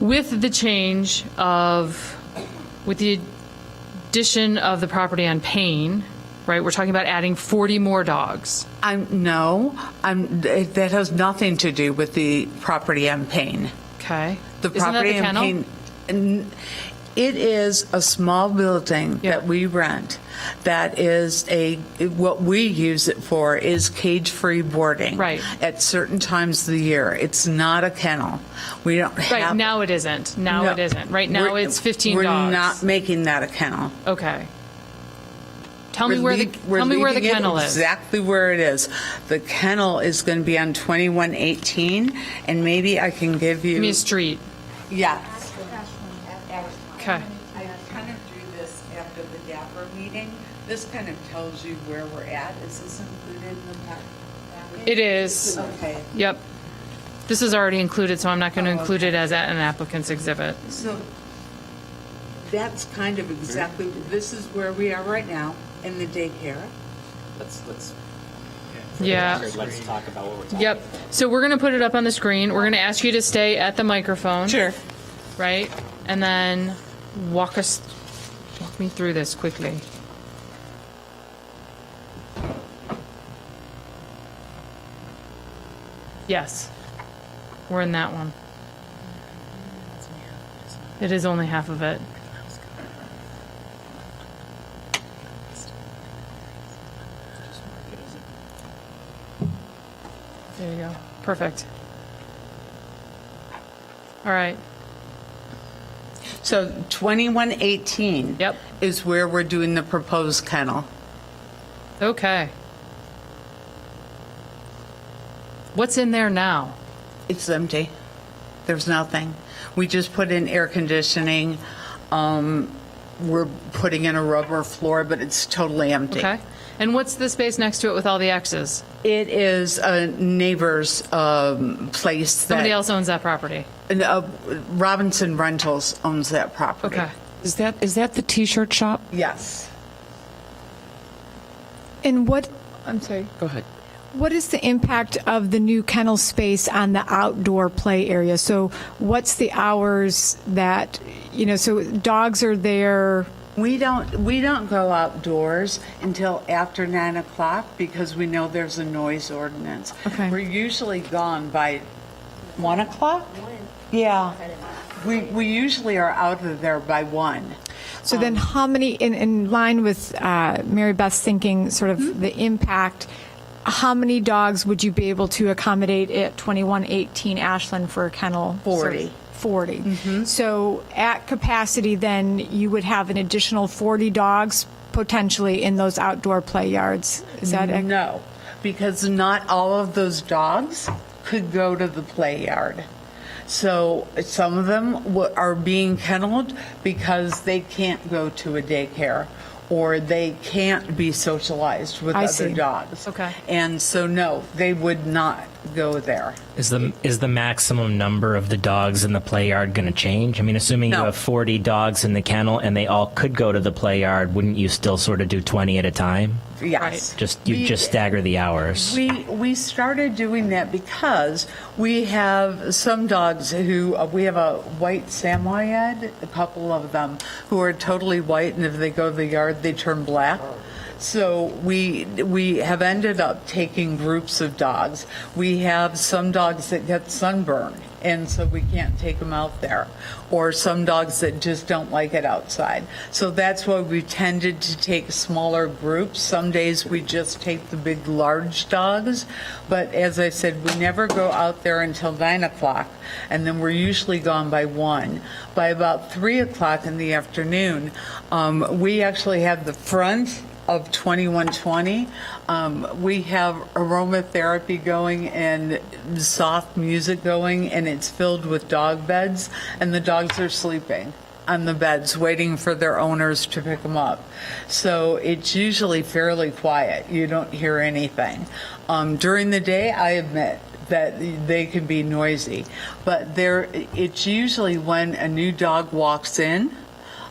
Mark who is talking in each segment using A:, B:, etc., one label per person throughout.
A: with the change of, with the addition of the property on Payne, right, we're talking about adding 40 more dogs.
B: I'm, no, I'm, th- that has nothing to do with the property on Payne.
A: Okay?
B: The
A: Isn't that
B: property
A: the
B: on
A: kennel?
B: Payne, n- it is a small building
A: Yeah.
B: that we rent that is a, what we use it for is cage-free boarding.
A: Right.
B: At certain times of the year. It's not a kennel. We don't have.
A: Right, now it isn't. Now
B: No.
A: it isn't. Right now
B: We're-
A: it's 15
B: We're
A: dogs.
B: not making that a kennel.
A: Okay. Tell me
B: We're
A: where the,
B: leav- we're
A: tell me where the
B: leaving it
A: kennel is.
B: Exactly where it is. The kennel is going to be on 2118, and maybe I can give
A: Give me
B: you,
A: a street.
B: yeah.
A: Okay.
B: I kind of drew this after the DAPR meeting. This kind of tells you where we're at. Is this included in the package?
A: It is.
B: Okay,
A: Yep. This is already included, so I'm not going
B: Oh,
A: to include it as a- an applicant's exhibit.
B: so that's kind of exactly, this is where we are right now in the daycare.
C: Let's, let's.
A: Yeah.
C: Let's talk about what we're talking.
A: Yep. So we're going to put it up on the screen. We're going to ask you to stay at the microphone. Right? And then walk us, walk me through this quickly. Yes. We're in that one. It is only half of it. There you go. Perfect. All right.
B: So 2118.
A: Yep.
B: Is where we're doing the proposed kennel.
A: Okay. What's in there now?
B: It's empty. There's nothing. We just put in air conditioning. Um, We're putting in a rubber floor, but it's totally empty.
A: Okay. And what's the space next to it with all the X's?
B: It is a neighbor's um, place that.
A: Somebody else owns that property.
B: and, uh, Robinson Rentals owns that property.
A: Okay.
D: Is that, is that the t-shirt shop?
B: Yes.
E: And what, I'm sorry,
D: Go ahead.
E: what is the impact of the new kennel space on the outdoor play area? So what's the hours that, you know, so dogs are there,
B: We don't, we don't go outdoors until after nine o'clock because we know there's a noise ordinance.
E: Okay.
B: We're usually gone by one o'clock? Yeah. We, we usually are out of there by one.
E: so then how many, in, in line with uh, Mary Beth's thinking, sort of the impact, how many dogs would you be able to accommodate at 2118 Ashland for a kennel?
B: 40.
E: 40. So at capacity, then, you would have an additional 40 dogs potentially in those outdoor play yards. Is that, ac-
B: No, because not all of those dogs could go to the play yard. So some of them wa- are being kenneled because they can't go to a daycare or they can't be socialized with
E: I
B: other
E: see.
B: dogs.
A: Okay.
B: And so, no, they would not go there.
F: Is the is the maximum number of the dogs in the play yard going to change? I mean, assuming
B: No.
F: you have 40 dogs in the kennel and they all could go to the play yard, wouldn't you still sort of do 20 at a time?
B: Yes.
F: Just you
B: We-
F: just stagger the hours.
B: We, we started doing that because we have some dogs who, uh, we have a white Samoyed, a couple of them, who are totally white, and if they go to the yard, they turn black. So we, we have ended up taking groups of dogs. We have some dogs that get sunburned, and so we can't take them out there, or some dogs that just don't like it outside. So that's why we tended to take smaller groups. Some days we just take the big, large dogs, but as I said, we never go out there until nine o'clock, and then we're usually gone by one. By about three o'clock in the afternoon, um, we actually have the front of 2120. Um, we have aromatherapy going and soft music going, and it's filled with dog beds, and the dogs are sleeping on the beds, waiting for their owners to pick them up. So it's usually fairly quiet. You don't hear anything. Um, during the day, I admit that they can be noisy, but there, it's usually when a new dog walks in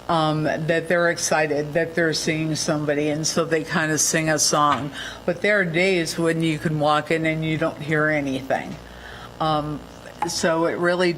B: um, that they're excited that they're seeing somebody, and so they kind of sing a song. But there are days when you can walk in and you don't hear anything. Um, so it really